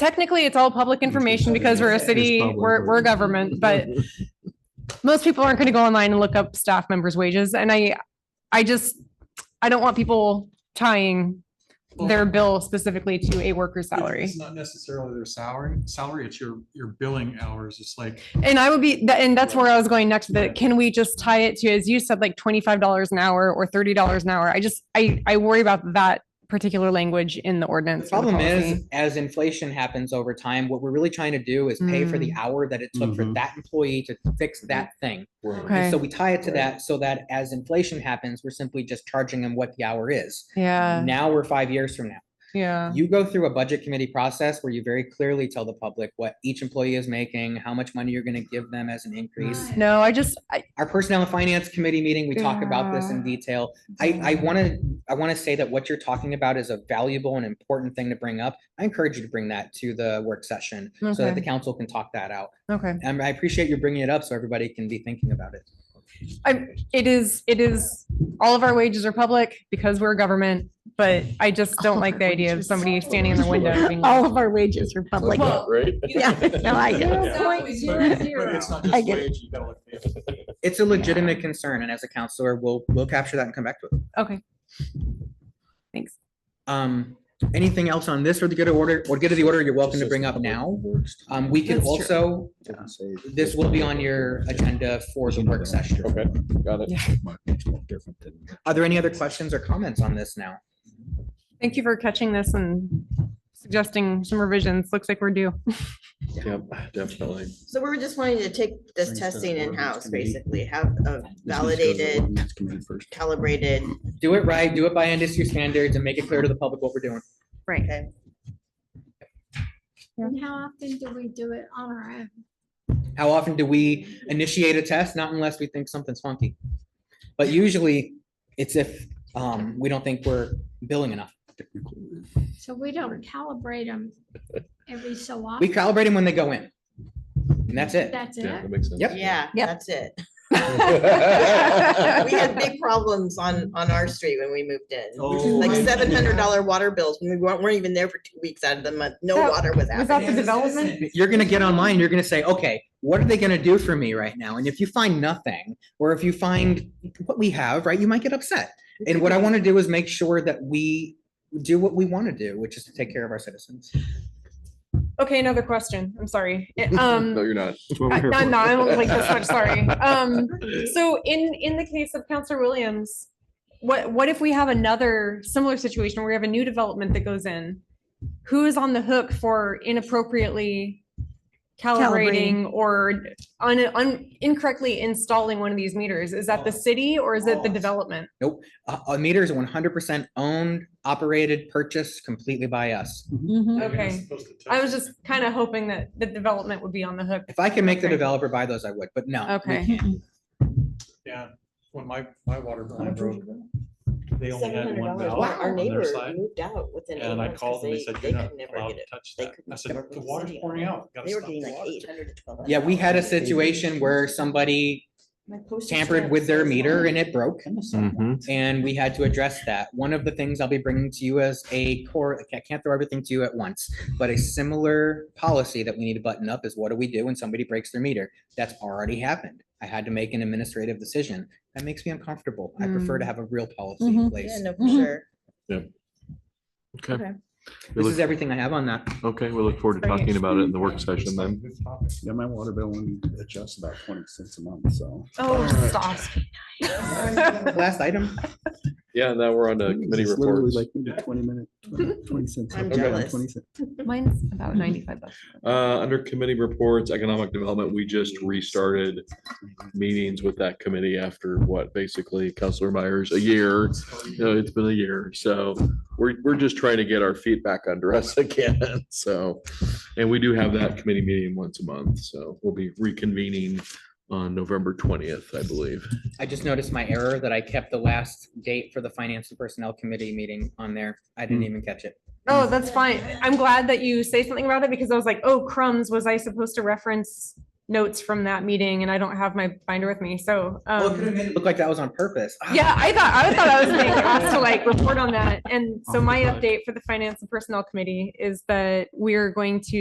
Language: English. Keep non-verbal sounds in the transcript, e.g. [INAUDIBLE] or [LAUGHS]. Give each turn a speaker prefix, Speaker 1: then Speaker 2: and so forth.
Speaker 1: technically it's all public information because we're a
Speaker 2: It's
Speaker 1: city,
Speaker 2: public.
Speaker 1: we're, we're government, but most people aren't going to go online and look up staff members' wages. And I, I just, I don't want people tying their bill specifically to a worker's salary.
Speaker 2: It's not necessarily their salary, salary, it's your, your billing hours. It's like,
Speaker 1: And I would be, tha- and that's where I was going next, but can we just tie it to, as you said, like twenty-five dollars an hour or thirty dollars an hour? I just, I, I worry about that particular language in the
Speaker 3: The
Speaker 1: ordinance. or the
Speaker 3: problem
Speaker 1: policy.
Speaker 3: is, as inflation happens over time, what we're really trying to do is pay for
Speaker 1: Mm.
Speaker 3: the hour that it took for
Speaker 2: Mhm.
Speaker 3: that employee to fix that thing.
Speaker 1: Okay.
Speaker 3: And so we tie it to that so that as inflation happens, we're simply just charging them what the hour is.
Speaker 1: Yeah,
Speaker 3: Now we're five years from now.
Speaker 1: yeah.
Speaker 3: You go through a budget committee process where you very clearly tell the public what each employee is making, how much money you're gonna give them as an increase.
Speaker 1: No, I just, I,
Speaker 3: Our personnel and finance committee meeting, we talk about this in
Speaker 1: Yeah.
Speaker 3: detail. I, I wanna, I wanna say that what you're talking about is a valuable and important thing to bring up. I encourage you to bring that to the work session so that the
Speaker 1: Okay.
Speaker 3: council can talk that out.
Speaker 1: okay.
Speaker 3: And I appreciate you bringing it up so everybody can be thinking about it.
Speaker 1: It is, it is, all of our wages are public because we're government, but I just don't like the idea of somebody standing in the window. being like,
Speaker 4: All of our wages are
Speaker 1: [LAUGHS]
Speaker 4: public.
Speaker 1: Well-
Speaker 5: Right?
Speaker 4: Yeah, no, I get it.
Speaker 2: but it's not
Speaker 4: I
Speaker 2: just
Speaker 4: get
Speaker 2: wage, you gotta look at the-
Speaker 3: It's a legitimate concern and as a counselor, we'll, we'll capture that and come back to it.
Speaker 1: Okay,
Speaker 3: Um, anything else on this or the good of order, or good of the order you're welcome to bring up now?
Speaker 5: uh,
Speaker 3: Um, we can
Speaker 1: That's true.
Speaker 3: also, this will be on your agenda for the work session.
Speaker 5: Okay, got it.
Speaker 3: Are there any other questions or comments on this now?
Speaker 1: thank you for catching this and suggesting some revisions. Looks like we're due. [LAUGHS]
Speaker 5: Yep, definitely.
Speaker 6: So we're just wanting to take this
Speaker 5: Brings that
Speaker 6: testing
Speaker 5: ordinance
Speaker 6: in-house,
Speaker 5: committee.
Speaker 6: basically, have a validated, calibrated,
Speaker 3: Do it right, do it by industry standards and make it clear to the public what we're doing.
Speaker 1: Right.
Speaker 6: okay?
Speaker 7: And how often do we do it on our own?
Speaker 3: How often do we initiate a test? Not unless we think something's funky. But usually it's if, um, we don't think we're billing enough.
Speaker 7: So we don't calibrate them every so
Speaker 3: We
Speaker 7: often.
Speaker 3: calibrate them when they go in. And that's it.
Speaker 7: That's
Speaker 5: Yeah,
Speaker 7: it.
Speaker 5: that makes sense.
Speaker 3: Yep.
Speaker 6: Yeah,
Speaker 4: Yep.
Speaker 6: that's it. We had big [LAUGHS] problems on, on our street when we moved in.
Speaker 2: Oh,
Speaker 6: Like
Speaker 2: I-
Speaker 6: seven hundred dollar water bills, and we weren't, weren't even there for two weeks out of the month, no
Speaker 1: That-
Speaker 6: water was
Speaker 1: Was
Speaker 6: out.
Speaker 1: that the development?
Speaker 3: You're gonna get online, you're gonna say, okay, what are they gonna do for me right now? And if you find nothing, or if you find what we have, right, you might get upset. And what I wanna do is make sure that we do what we wanna do, which is to take care of our citizens.
Speaker 1: Okay, another question. I'm sorry. It-
Speaker 5: [LAUGHS] No,
Speaker 1: Um,
Speaker 5: you're not.
Speaker 1: I- no, no, I don't like this much, sorry. Um, so in, in the case of Counselor Williams, what, what if we have another similar situation where we have a new development that goes in? Who is on the hook for inappropriately calibrating or un, un, incorrectly installing one of these meters? Is that the city or is it the
Speaker 3: Oh.
Speaker 1: development?
Speaker 3: A, a meter is one hundred percent owned, operated, purchased completely by us.
Speaker 2: You're not
Speaker 1: Okay.
Speaker 2: supposed to touch
Speaker 1: I was
Speaker 2: it.
Speaker 1: just kind of hoping that the development would be on the hook.
Speaker 3: If I can make the
Speaker 1: Okay.
Speaker 3: developer buy those, I would, but no. we
Speaker 1: Okay.
Speaker 3: can't.
Speaker 2: Yeah, when my, my water bill, I broke, they only had one
Speaker 6: $700.
Speaker 2: valve
Speaker 6: Wow, Our
Speaker 2: on
Speaker 6: neighbor
Speaker 2: their side.
Speaker 6: moved out within eight
Speaker 2: And I
Speaker 6: months
Speaker 2: called
Speaker 6: 'cause
Speaker 2: and they
Speaker 6: they,
Speaker 2: said,
Speaker 6: they
Speaker 2: you're not
Speaker 6: could never
Speaker 2: allowed
Speaker 6: get
Speaker 2: to
Speaker 6: it.
Speaker 2: touch
Speaker 6: They
Speaker 2: that.
Speaker 6: couldn't
Speaker 2: I said,
Speaker 6: get
Speaker 2: "Look, the
Speaker 6: it.
Speaker 2: water's pouring out. Gotta
Speaker 6: They were
Speaker 2: stop
Speaker 6: getting
Speaker 2: the
Speaker 6: like
Speaker 2: water."
Speaker 6: eight hundred to twelve.
Speaker 3: Yeah, we had a situation where somebody tampered with their meter and it broke.
Speaker 5: Mm-hmm.
Speaker 3: And we had to address that. One of the things I'll be bringing to you as a core, I can't throw everything to you at once, but a similar policy that we need to button up is what do we do when somebody breaks their meter? That's already happened. I had to make an administrative decision. That makes me uncomfortable. I prefer
Speaker 1: Mm.
Speaker 3: to have a real policy in
Speaker 1: Mm-hmm.
Speaker 4: Mhm.
Speaker 6: Yeah,
Speaker 3: place.
Speaker 6: no, for sure.
Speaker 5: Okay. We
Speaker 3: This is
Speaker 5: look-
Speaker 3: everything I have on that.
Speaker 5: Okay, we look forward to
Speaker 1: Sorry.
Speaker 5: talking about it in the work session then.
Speaker 2: Good topic.
Speaker 8: Yeah, my water bill only adjusts about twenty cents a month, so.
Speaker 1: Oh, stop.
Speaker 3: Last item.
Speaker 5: Yeah, now we're on to committee
Speaker 8: It's literally
Speaker 5: reports.
Speaker 8: Like maybe twenty minute, 20 20 cents.
Speaker 6: I'm
Speaker 8: up, down,
Speaker 6: jealous.
Speaker 8: 20 cents.
Speaker 1: Mine's about ninety-five bucks.
Speaker 5: Uh, under committee reports, economic development, we just restarted meetings with that committee after what, basically, Counselor Myers, a year. You know, it's been a year, so we're, we're just trying to get our feet back under us [LAUGHS] again, so. And we do have that committee meeting once a month, so we'll be reconvening on November twentieth, I believe.
Speaker 3: I just noticed my error that I kept the last date for the Finance and Personnel Committee meeting on there. I didn't even catch it.
Speaker 1: Oh, that's fine. I'm glad that you say something about it because I was like, oh crumbs, was I supposed to reference notes from that meeting and I don't have my binder with me. So,
Speaker 3: Well, it could have
Speaker 1: um,
Speaker 3: made it look like that was on purpose. Ah,
Speaker 1: yeah, I thought, I thought I was being asked to like report on that. And so my update for the finance and personnel committee is that we're going to